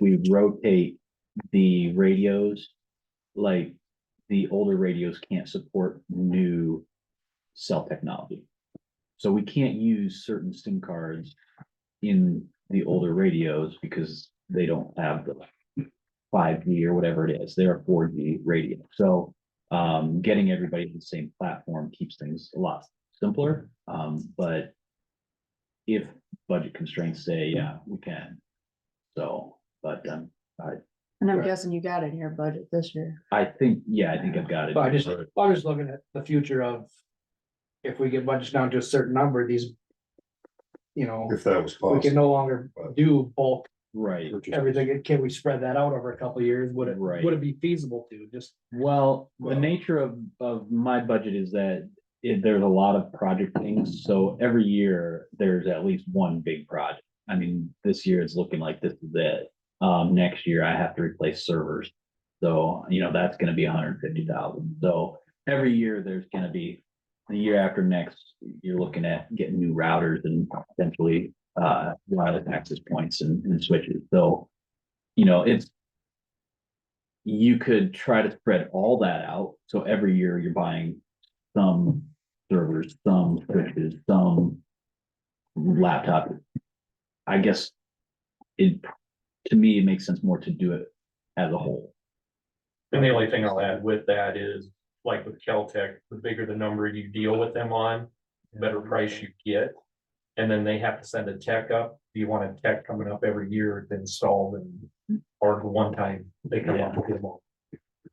we rotate the radios, like the older radios can't support new cell technology. So we can't use certain SIM cards in the older radios because they don't have the five G or whatever it is. They're a four G radio. So um, getting everybody to the same platform keeps things a lot simpler. Um, but if budget constraints say, yeah, we can. So, but um, And I'm Right. guessing you got it in your budget this year. I think, yeah, I think I've got it. But I just, Right. I'm just looking at the future of. If we get budgets down to a certain number, these. You know, If that was we can possible. no longer do bulk Right. everything, can we spread that out over a couple of years, would it, Right. would it be feasible to just? Well, the Well- nature of, of my budget is that it, there's a lot of project things, so every year there's at least one big project. I mean, this year it's looking like this is it. Um, next year I have to replace servers. So, you know, that's gonna be hundred fifty thousand. So every year there's gonna be, the year after next, you're looking at getting new routers and potentially, uh, wireless access points and, and switches. So, you know, it's, you could try to spread all that out. So every year you're buying some servers, some switches, some laptop. I guess it, to me, it makes sense more to do it as a whole. And the only thing I'll add with that is, like with Caltech, the bigger the number you deal with them on, the better price you get. And then they have to send a tech up. If you want a tech coming up every year to install and, or one time they come up with them all.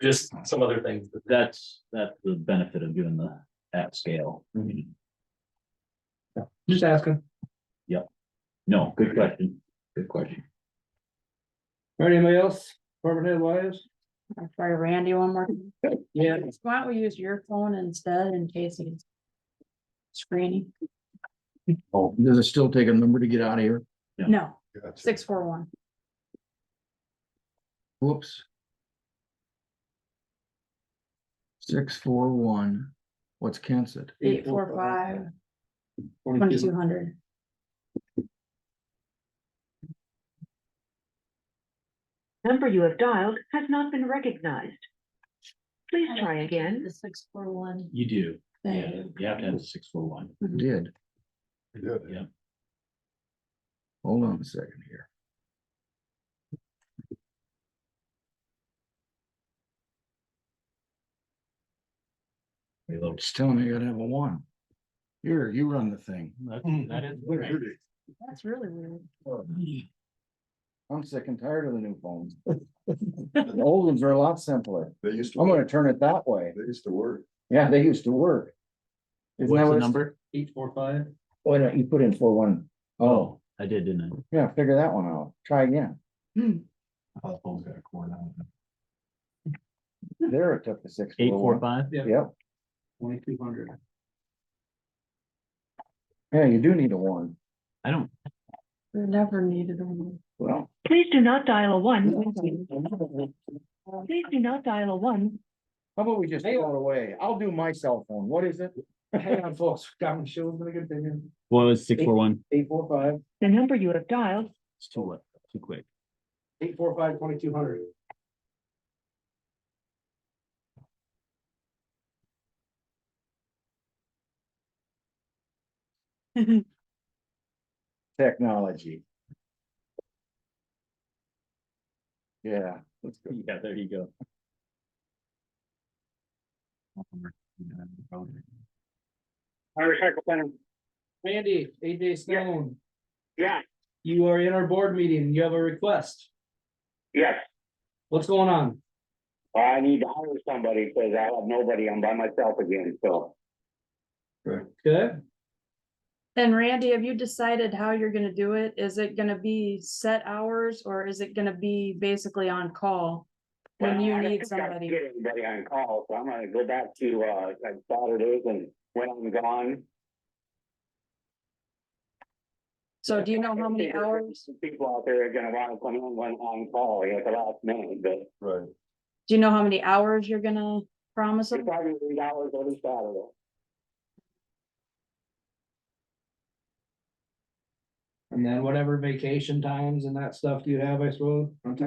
Just some other things. that- That's, that's the benefit of doing the at scale. Just asking. No, good question. Good question. All right, anybody else? Department head wise? I'll try Randy one more. time. Yeah. Why don't we use your phone instead in case he's screening? Does it still take a number to get out of here? Yeah. No, Gotcha. six, four, one. Whoops. Six, four, one. What's canceled? Eight, four, five, Twenty-two. twenty-two hundred. Number you have dialed has not been recognized. Please try again. The six, four, one. You do. Yeah, thing. you have to have a six four one. It Did. Good. Yeah. Hold on a second here. It's telling me I gotta have a one. Here, you run the thing. Hmm. That's really weird. I'm sick and tired of the new phones. The old ones are a lot simpler. They used to, I'm work. gonna turn it that way. they used to work. Yeah, they used to work. Isn't that What's the what- number? Eight, four, five. Why not, you put in four one, oh, I did, didn't I? yeah, figure that one out, try again, Oh, phone's got a cord on it. there it took the six. Eight four 401. five? Yep, Twenty-two hundred. yeah, you do need a one, I don't, We never needed one. well. Please do not dial a one. How Please do not dial a one. about we just throw it away, I'll do my cell phone, what is it? Hang on, folks, got me showing the good thing. what was six four one? Eight, four, five, The number you have dialed It's too late, too quick. eight, four, five, twenty-two hundred. Technology. Yeah, let's go. Yeah, there you go. Irish Cycle Center, Randy, AJ Stone, yes, you are in our board meeting, you have a request, yes, what's going on? I need to hire somebody because I have nobody, I'm by myself again, so. Good, And Randy, have you decided how you're gonna do it? Is it gonna be set hours or is it gonna be basically on call? When Well, you I need don't think I can somebody? Get anybody on call, so I'm gonna go back to, uh, like Saturdays and when I'm gone. So do you know how many There's hours, People out there are gonna wanna come in when I'm call, you know, at the last minute, but Right. do you know how many hours you're gonna promise them? it's probably three dollars every Saturday. And then whatever vacation times and that stuff you have, I suppose, on top